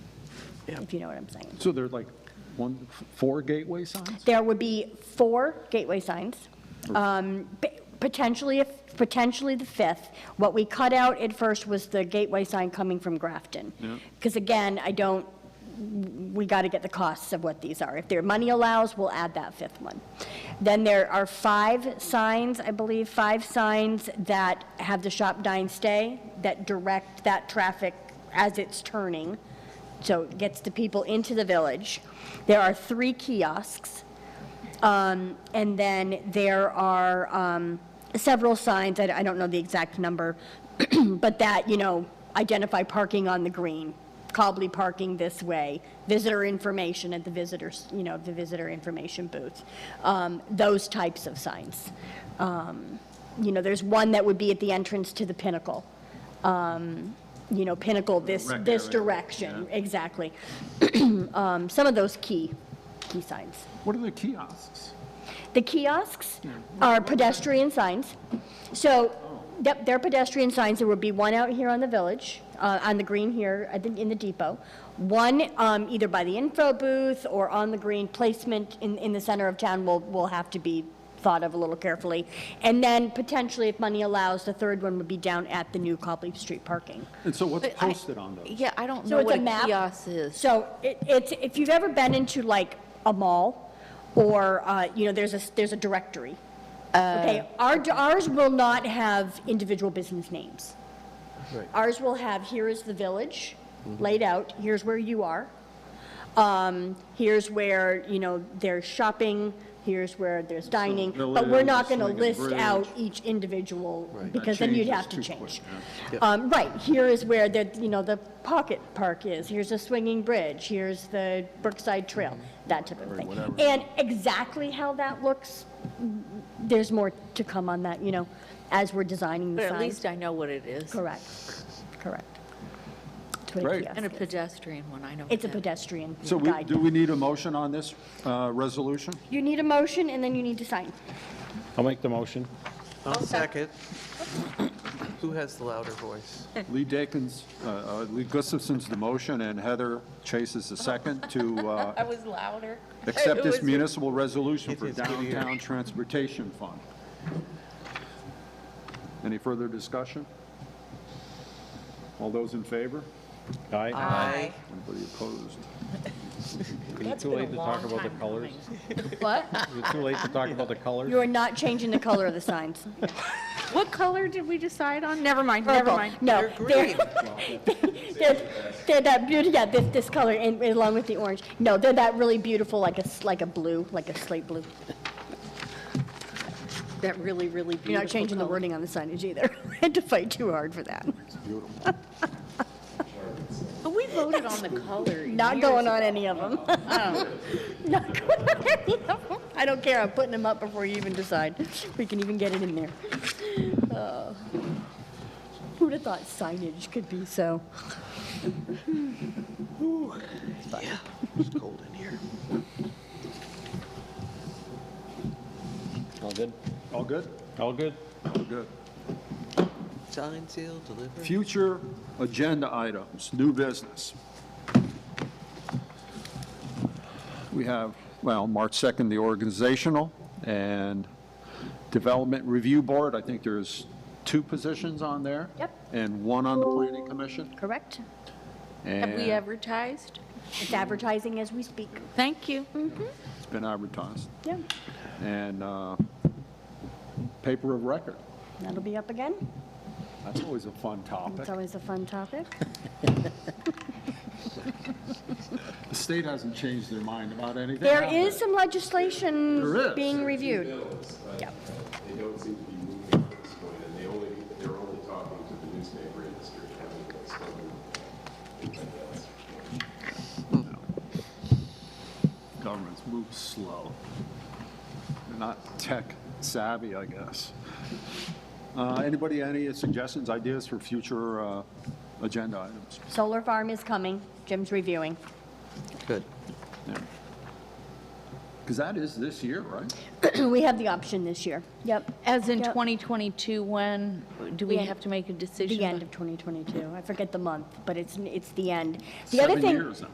if you know what I'm saying. So there are like one, four gateway signs? There would be four gateway signs, um, p- potentially, a f- potentially the fifth. What we cut out at first was the gateway sign coming from Grafton. Yeah. Because again, I don't, we got to get the costs of what these are. If their money allows, we'll add that fifth one. Then there are five signs, I believe, five signs that have the shop, dine, stay, that direct that traffic as it's turning, so it gets the people into the village. There are three kiosks, um, and then there are um, several signs, I I don't know the exact number, but that, you know, identify parking on the green, Cobley parking this way, visitor information at the visitors, you know, the visitor information booth, um, those types of signs. Um, You know, there's one that would be at the entrance to the Pinnacle, um, you know, Pinnacle this, Rec this area, direction, exactly. Um, Some of those key, key signs. What are the kiosks? The kiosks are pedestrian signs. So, yep, they're pedestrian signs. There would be one out here on the village, uh, on the green here, at the- in the depot. One um, either by the info booth or on the green placement in, in the center of town will, will have to be thought of a little carefully. And then potentially, if money allows, the third one would be down at the new Copley Street parking. And so what's But I- posted on those? Yeah, I don't So know it's what a a map. kiosk is. So it, it's, if you've ever been into like a mall or, uh, you know, there's a, there's a directory. Uh, Okay, our, ours will not have individual business names. Ours will have, here is the village Mm-hmm. laid out, here's where you are. Um, here's where, you know, there's shopping, here's where there's dining. But we're not Village, gonna Swing and list Bridge. out each individual because That then you'd changes have to too quick, change. Um, Right, here is where the, you know, the pocket park is, here's the swinging bridge, here's the Brookside Trail, Mm-hmm. that type of thing. And exactly how that looks, mm, there's more to come on that, you know, as we're designing the But at signs. least I know what it is. Correct, correct. It's what a Great. kiosk And a is. pedestrian one, I know. It's a what that- pedestrian So we, guide. do we need a motion on this uh, resolution? You need a motion and then you need to sign. I'll make the motion. I'll second. Who has the louder voice? Lee Dakins, uh, uh, Lee Gustafson's the motion, and Heather Chase is the second to uh, was louder. accept It this was- municipal resolution for It is clear. downtown transportation fund. Any further discussion? All those in favor? Aye. Aye. Anybody opposed? Is it too late to talk about the colors? What? Is it too late to talk about the colors? You are not changing the color of the signs. What color did we decide on? Never mind, never Purple. mind. No, They're they're, green. they're, they're that beauty, yeah, this, this color and along with the orange. No, they're that really beautiful, like a, s- like a blue, like a slate blue. That really, really beautiful. You're not changing the color. wording on the signage either. I had to fight too hard for that. But we voted on the color. Not years going on ago. any of them. Not going on any of them. I don't care, I'm putting them up before you even decide. We can even get it in there. Oh. Who'd have thought signage could be so? It's cold in here. All good? All good? All good? All good. Sign, seal, deliver. Future agenda items, new business. We have, well, March 2nd, the organizational and development review board. I think there's two positions on there. Yep. And one on the planning commission. Correct? Have we and advertised? It's advertising as we speak. Mm-hmm. Thank you. It's been advertised. Yeah, And uh, paper of record. that'll be up again. That's always a fun topic. It's always a fun topic. The state hasn't changed their mind about anything. There have is they? some There legislation is. being reviewed. bills, but Yep. they don't seem to be moving at this point, and they only, they're only talking to the newspaper industry, having this else. Governments move slow. They're not tech savvy, I guess. Uh, Anybody, any suggestions, ideas for future uh, agenda items? Solar farm is coming, Jim's reviewing. Good. Because that is this year, right? We have the option this year. Yep, As in Yep. 2022, when do we The end. have to make a decision? the by- end of 2022. I forget the month, but it's, it's the end. The other Seven thing. years now.